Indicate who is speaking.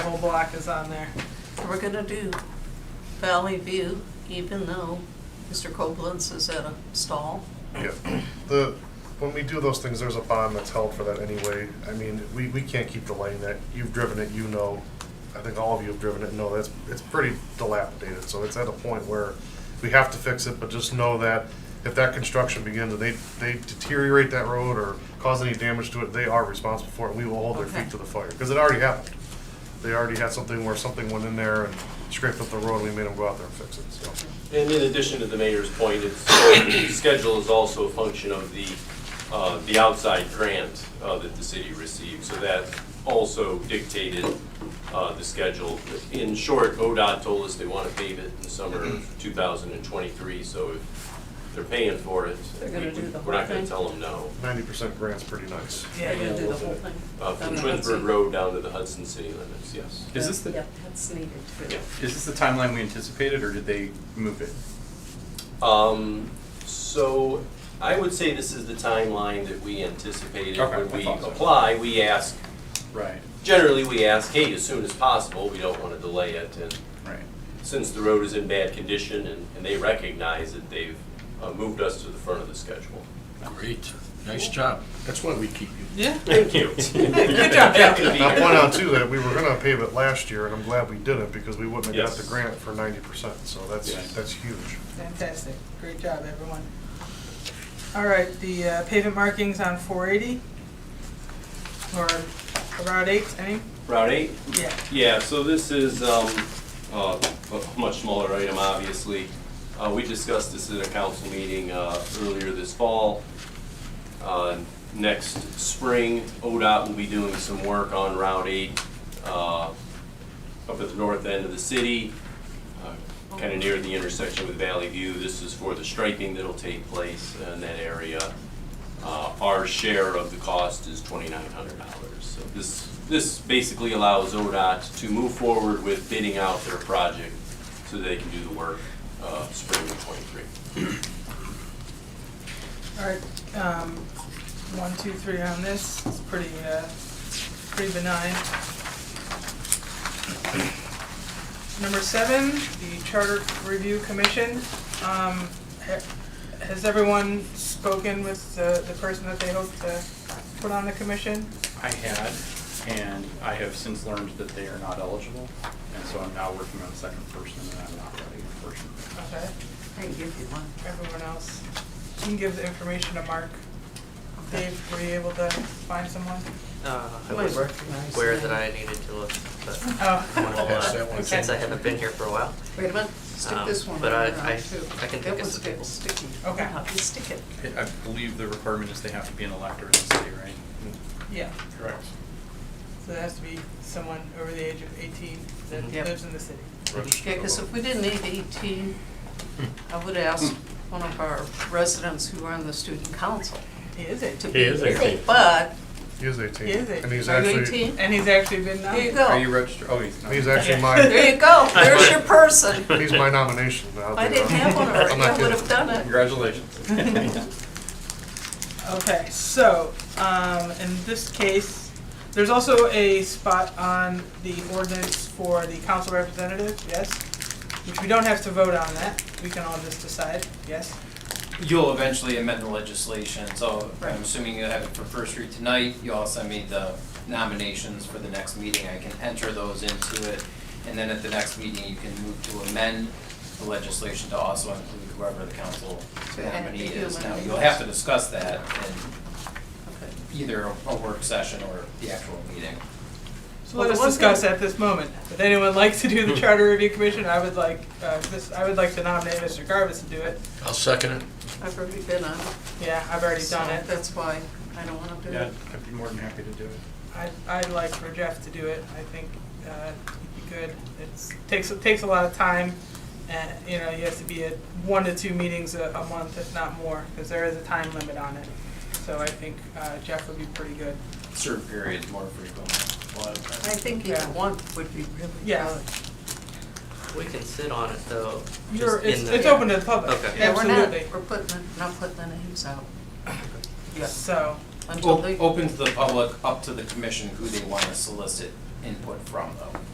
Speaker 1: block is on there.
Speaker 2: So we're gonna do Valley View, even though Mr. Koblenz is at a stall.
Speaker 3: Yeah, the, when we do those things, there's a bond that's held for that anyway. I mean, we, we can't keep delaying that. You've driven it, you know. I think all of you have driven it, and know that's, it's pretty dilapidated, so it's at a point where we have to fix it, but just know that if that construction begins and they, they deteriorate that road or cause any damage to it, they are responsible for it, and we will hold their
Speaker 2: Okay.
Speaker 3: feet to the fire, because it already happened. They already had something where something went in there and scraped up the road, we made them go out there and fix it, so.
Speaker 4: And in addition to the mayor's point, it's, so the schedule is also a function of the, uh, the outside grant uh, that the city received. So that also dictated uh, the schedule. In short, ODOT told us they want to pave it in the summer of 2023, so if they're paying for it,
Speaker 2: They're gonna do the
Speaker 4: we're not
Speaker 2: whole
Speaker 4: going
Speaker 2: thing?
Speaker 4: to tell them no.
Speaker 3: Ninety percent grant's pretty nice.
Speaker 2: We're gonna do
Speaker 1: Yeah,
Speaker 2: the whole thing.
Speaker 4: Uh,
Speaker 2: Down
Speaker 4: From
Speaker 2: the
Speaker 4: Twinsburg
Speaker 2: Hudson.
Speaker 4: Road down to the Hudson city limits, yes.
Speaker 5: Is this the,
Speaker 2: Yeah, that's needed too.
Speaker 4: Yeah.
Speaker 5: is this the timeline we anticipated, or did they move it?
Speaker 4: Um, so I would say this is the timeline that we anticipated
Speaker 5: Okay,
Speaker 4: when
Speaker 5: I
Speaker 4: we
Speaker 5: thought so.
Speaker 4: apply. We ask,
Speaker 5: Right.
Speaker 4: generally we ask, hey, as soon as possible, we don't want to delay it. And
Speaker 5: Right.
Speaker 4: since the road is in bad condition and, and they recognize it, they've uh, moved us to the front of the schedule.
Speaker 6: Great, nice job. That's why we keep you.
Speaker 1: Yeah.
Speaker 4: Thank you.
Speaker 1: Good job,
Speaker 4: Happy to be
Speaker 1: Captain.
Speaker 3: And I'll point
Speaker 4: here.
Speaker 3: out too that we were gonna pave it last year, and I'm glad we didn't, because we wouldn't have got the
Speaker 4: Yes.
Speaker 3: grant for ninety percent, so that's,
Speaker 5: Yes.
Speaker 3: that's huge.
Speaker 1: Fantastic. Great job, everyone. All right, the uh, pavement markings on 480 or Route 8, any?
Speaker 4: Route eight?
Speaker 1: Yeah.
Speaker 4: Yeah, so this is um, uh, a much smaller item, obviously. Uh, We discussed this at a council meeting uh, earlier this fall. Uh, Next spring, ODOT will be doing some work on Route 8 uh, up at the north end of the city, kind of uh, near the intersection with Valley View. This is for the striping that'll take place in that area. Uh, Our share of the cost is twenty-nine hundred dollars. So this, this basically allows ODOT to move forward with bidding out their project so they can do the work uh, spring of twenty-three.
Speaker 1: All right, um, one, two, three on this, it's pretty, uh, pretty benign. Number seven, the Charter Review Commission, um, ha- has everyone spoken with the, the person that they hope to put on the commission?
Speaker 5: I had, and I have since learned that they are not eligible, and so I'm now working on a second person, and I'm not ready for person.
Speaker 1: Okay,
Speaker 2: I can give you one.
Speaker 1: everyone else, you can give the information to Mark. Dave, were you able to find someone?
Speaker 7: Uh, I
Speaker 2: You
Speaker 7: was
Speaker 2: recognize
Speaker 7: aware
Speaker 2: the
Speaker 7: that I
Speaker 2: name.
Speaker 7: needed to look, but
Speaker 1: Oh,
Speaker 7: well,
Speaker 6: Pass that
Speaker 7: uh,
Speaker 6: one.
Speaker 7: since I haven't been here for a while.
Speaker 2: Wait a minute,
Speaker 7: Um,
Speaker 2: stick this one
Speaker 7: but I-
Speaker 2: around
Speaker 7: I-
Speaker 2: too.
Speaker 7: I can
Speaker 2: That
Speaker 7: think of
Speaker 2: one's
Speaker 7: some
Speaker 2: getting
Speaker 7: people.
Speaker 2: sticky.
Speaker 1: Okay.
Speaker 2: Now, you stick it.
Speaker 5: I believe the requirement is they have to be an elector in the city, right?
Speaker 1: yeah.
Speaker 5: Correct.
Speaker 1: So that has to be someone over the age of eighteen that
Speaker 7: Mhm. Yep.
Speaker 1: lives in the city.
Speaker 2: Yeah, because if we didn't need eighteen, I would ask one of our residents who are on the student council
Speaker 1: He is
Speaker 2: to
Speaker 1: eighteen.
Speaker 2: be here. But,
Speaker 3: He is eighteen.
Speaker 1: He is 18.
Speaker 3: And he's
Speaker 2: are you
Speaker 3: actually,
Speaker 2: eighteen?
Speaker 1: And he's actually been
Speaker 2: There you
Speaker 1: nominated.
Speaker 5: Are you
Speaker 2: go.
Speaker 5: registered? Oh, he's not.
Speaker 3: he's actually
Speaker 2: There
Speaker 3: my,
Speaker 2: you go. There's your person. If
Speaker 3: he's my nomination. I'll
Speaker 2: I
Speaker 3: be
Speaker 2: didn't
Speaker 3: on.
Speaker 2: have one
Speaker 3: I'm
Speaker 2: already.
Speaker 3: not
Speaker 2: I would have
Speaker 3: kidding.
Speaker 2: done it.
Speaker 5: Congratulations.
Speaker 1: Okay, so, um, in this case, there's also a spot on the ordinance for the council representative, yes? Which we don't have to vote on that, we can all just decide, yes?
Speaker 8: You'll eventually amend the legislation, so
Speaker 1: Right.
Speaker 8: I'm assuming you have it for first read tonight. You also made the nominations for the next meeting. I can enter those into it. And then at the next meeting, you can move to amend the legislation to also include whoever the council
Speaker 2: To add
Speaker 8: nominee
Speaker 2: the
Speaker 8: is. Now,
Speaker 2: human
Speaker 8: you'll have to discuss that in either a- a work session or the actual meeting.
Speaker 1: So
Speaker 2: Well,
Speaker 1: let
Speaker 2: the
Speaker 1: us
Speaker 2: one
Speaker 1: discuss
Speaker 2: thing-
Speaker 1: at this moment. If anyone likes to do the charter review commission, I would like, uh, this, I would like to nominate Mr. Garvis to do it.
Speaker 6: I'll second it.
Speaker 2: I've already been on it.
Speaker 1: Yeah, I've already
Speaker 2: so
Speaker 1: done it.
Speaker 2: That's why I don't want to do
Speaker 5: Yeah,
Speaker 2: it.
Speaker 5: I'd be more than happy to do it.
Speaker 1: I'd, I'd like for Jeff to do it. I think uh, he'd be good. It's takes it takes a lot of time, and you know he has to be at one to two meetings a, a month, if not more, because there is a time limit on it. So I think uh, Jeff would be pretty good.
Speaker 8: Certain periods more frequently.
Speaker 2: I think
Speaker 1: Yeah.
Speaker 2: even one would be really good.
Speaker 1: Yeah.
Speaker 7: We can sit on it though. just
Speaker 1: You're, it's,
Speaker 7: in the-
Speaker 1: it's open to the public.
Speaker 7: Okay.
Speaker 2: Yeah, we're not,
Speaker 1: Absolutely.
Speaker 2: we're putting, the- not putting the names out
Speaker 1: yeah. So
Speaker 2: until
Speaker 8: Well,
Speaker 2: they.
Speaker 8: Open to the public, up to the commission who they want to solicit input from, though.